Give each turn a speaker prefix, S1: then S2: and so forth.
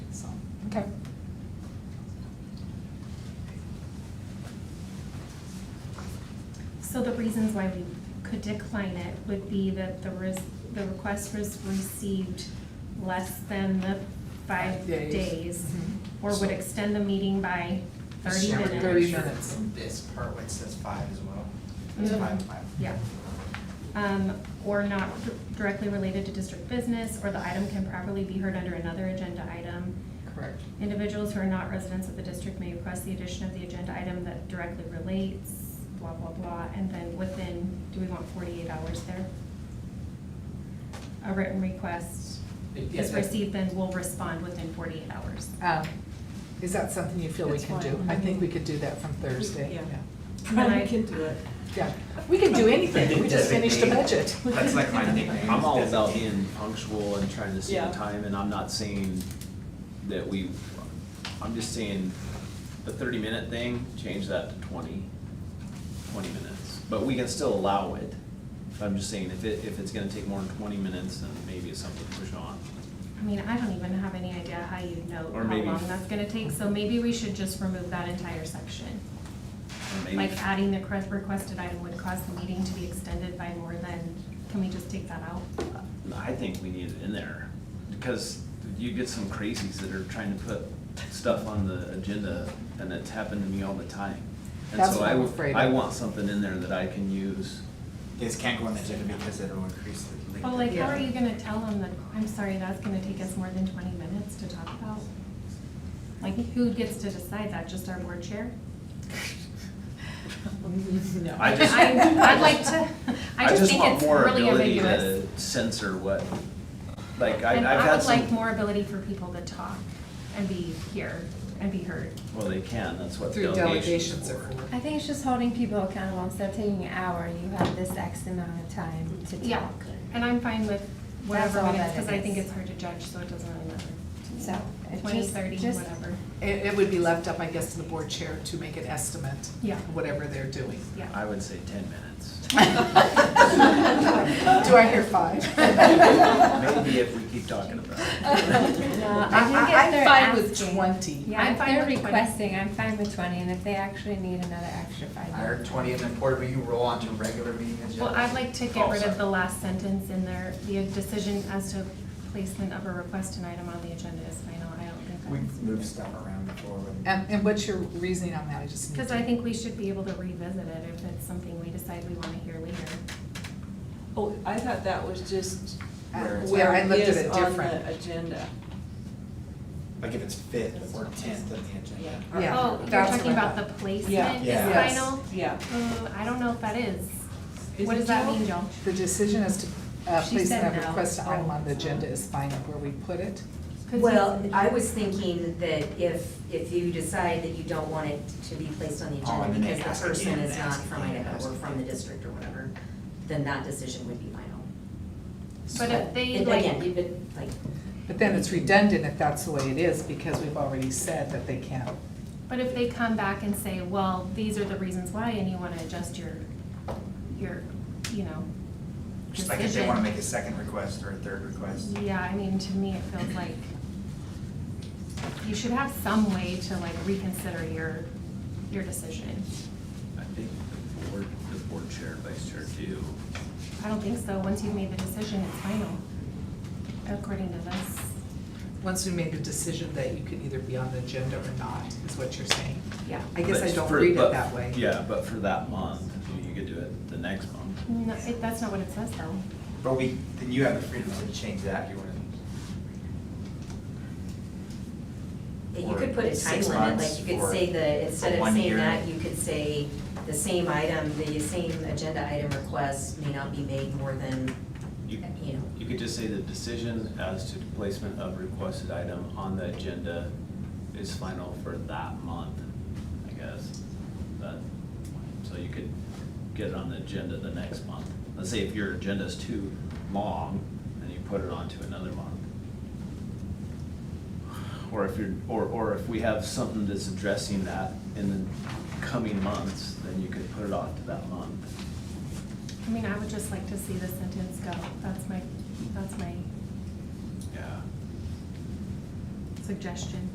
S1: Okay.
S2: So the reasons why we could decline it would be that the res, the request was received less than the five
S1: Five days.
S2: days. Or
S3: So-
S2: would extend the meeting by
S3: Mm-hmm.
S2: thirty
S3: Just
S2: minutes.
S3: remember
S1: Thirty
S3: sure
S1: minutes.
S3: This part which says five as well.
S2: Mhm.
S3: It's five, five.
S2: Yeah. Um, or not d- directly related to district business, or the item can properly be heard under another agenda item.
S1: Correct.
S2: Individuals who are not residents of the district may request the addition of the agenda item that directly relates, blah, blah, blah, and then within, do we want forty-eight hours there? A written request
S3: Yeah,
S2: is
S3: that-
S2: received, then we'll respond within forty-eight hours.
S1: Um, Is that something you feel we
S4: That's
S1: can do?
S4: fine.
S1: I think we could do that from Thursday.
S4: Yeah.
S2: And I-
S4: I can do it.
S1: Yeah, we can do anything, we just finished the budget.
S3: That's like my nickname.
S5: I'm all about
S3: designate.
S5: being punctual and trying to see the
S4: Yeah.
S5: time, and I'm not saying that we, I'm just saying the thirty minute thing, change that to 20 20 minutes, but we can still allow it. But I'm just saying, if it, if it's gonna take more than twenty minutes, then maybe it's something to push on.
S2: I mean, I don't even have any idea how you note how
S5: Or maybe-
S2: long that's gonna take, so maybe we should just remove that entire section.
S5: Or maybe-
S2: Like adding the cre- requested item would cause the meeting to be extended by more than, can we just take that out?
S5: I think we need it in there, because you get some crazies that are trying to put stuff on the agenda, and it's happened to me all the time. And
S1: That's
S5: so
S1: what
S5: I,
S1: I'm
S5: w-
S1: afraid
S5: I
S1: of.
S5: want something in there that I can use.
S3: This can't go on the agenda because it'll increase the length.
S2: Well, like, how are
S1: Yeah.
S2: you gonna tell them that, I'm sorry, that's gonna take us more than twenty minutes to talk about? Like, who gets to decide that, just our board chair?
S1: No.
S5: I just-
S2: I, I'd like to, I just think
S5: want
S2: it's
S5: more
S2: really
S5: ability to
S2: ambiguous.
S5: Censor what, like, I, I've
S2: And I
S5: had
S2: would like
S5: some,
S2: more ability for people to talk and be here and be heard.
S5: well, they can, that's what
S1: Through
S5: delegations
S1: delegations
S5: are
S1: or.
S5: for.
S6: I think it's just holding people accountable, instead of taking an hour, you have this X amount of time to
S2: Yeah,
S6: talk.
S2: and I'm fine with
S6: That's
S2: whatever
S6: all
S2: minutes,
S6: that it
S2: because I think
S6: is.
S2: it's hard to judge, so it doesn't really matter. to me.
S6: So, it
S2: Twenty,
S6: just-
S2: thirty,
S6: just-
S2: whatever,
S1: It, it would be left up, I guess, to the board chair to make an estimate.
S2: Yeah.
S1: of Whatever they're doing.
S2: yeah.
S5: I would say ten minutes.
S1: Do I hear five?
S5: Maybe if we keep talking about it.
S6: No, I think if
S1: I,
S6: they're
S1: am fine with
S6: asking-
S1: twenty.
S6: Yeah,
S2: I'm
S6: if
S2: fine
S6: they're
S2: with 20.
S6: requesting, I'm fine with twenty, and if they actually need another extra
S3: I
S6: five
S3: heard
S6: minutes.
S3: twenty and then Porter, will you roll onto regular meeting agenda?
S2: Well, I'd like to get
S3: Oh,
S2: rid of
S3: sorry.
S2: the last sentence in there, the decision as to placement of a request and item on the agenda is final, I don't think
S3: We
S2: that's.
S3: moved stuff around before. when-
S1: And, and what's your reasoning on that? I just need
S2: Because
S1: to-
S2: I think we should be able to revisit it if it's something we decide we want to hear later.
S4: Oh, I thought that was just
S1: Uh,
S3: Where it's-
S1: Yeah,
S4: where
S1: I
S4: it
S1: looked at
S4: is
S1: it
S4: on the
S1: different.
S4: agenda.
S3: Like if it's fifth or tenth of the agenda.
S4: Yeah.
S1: Yeah.
S2: Oh, you're
S1: that's what
S2: talking
S1: I
S2: about
S1: thought.
S2: the placement is
S3: Yeah.
S1: Yes.
S2: final?
S4: Yeah.
S2: Mm, I don't know if that is.
S4: Is
S2: What
S4: it
S2: does that
S4: Joe?
S2: mean, Joe?
S1: The decision as to, uh,
S2: She
S1: place
S2: said
S1: that
S2: no. Oh,
S1: request item on the agenda is fine where we put it.
S2: 'Cause you-
S7: Well, I was thinking that if, if you decide that you don't want it to be placed on the
S3: Oh, and
S7: agenda
S3: then they
S7: because
S3: ask
S7: the person
S3: again,
S7: is
S3: and
S7: not
S3: ask
S7: from
S3: again, and
S7: Idaho or
S3: ask
S7: from the
S3: again.
S7: district or whatever, then that decision would be final.
S2: But if they
S7: And Again,
S2: like,
S7: you've been, like,
S1: But then it's redundant if that's the way it is, because we've already said that they can't.
S2: but if they come back and say, well, these are the reasons why, and you want to adjust your, your, you know,
S3: Just like if they wanna
S2: decision.
S3: make a second request or a third request.
S2: Yeah, I mean, to me, it feels like you should have some way to like reconsider your, your decision.
S5: I think the board, the board chair, vice chair do,
S2: I don't think so. Once you've made the decision, it's final, according to this.
S1: Once we made the decision that you could either be on the agenda or not, is what you're saying.
S2: Yeah.
S1: I guess I
S5: But
S1: don't
S5: for-
S1: read it
S5: but-
S1: that way.
S5: Yeah, but for that month, you could do it the next month.
S2: No, it- that's not what it says though.
S3: But we, then you have the freedom to change that if you wanna.
S7: you
S3: Or
S7: could put a time
S3: six
S7: limit,
S3: months
S7: like you could
S3: or-
S7: say the,
S3: or
S7: instead of
S3: one
S7: saying
S3: year.
S7: that, you could say the same item, the same agenda item request may not be made more than, you
S5: You-
S7: know,
S5: You could just say the decision as to placement of requested item on the agenda is final for that month, I guess. But, so you could get it on the agenda the next month. Let's say if your agenda is too long, then you put it on to another month. Or if you're, or, or if we have something that's addressing that in the coming months, then you could put it off to that month.
S2: I mean, I would just like to see the sentence go. That's my, that's my
S5: Yeah.
S2: suggestion.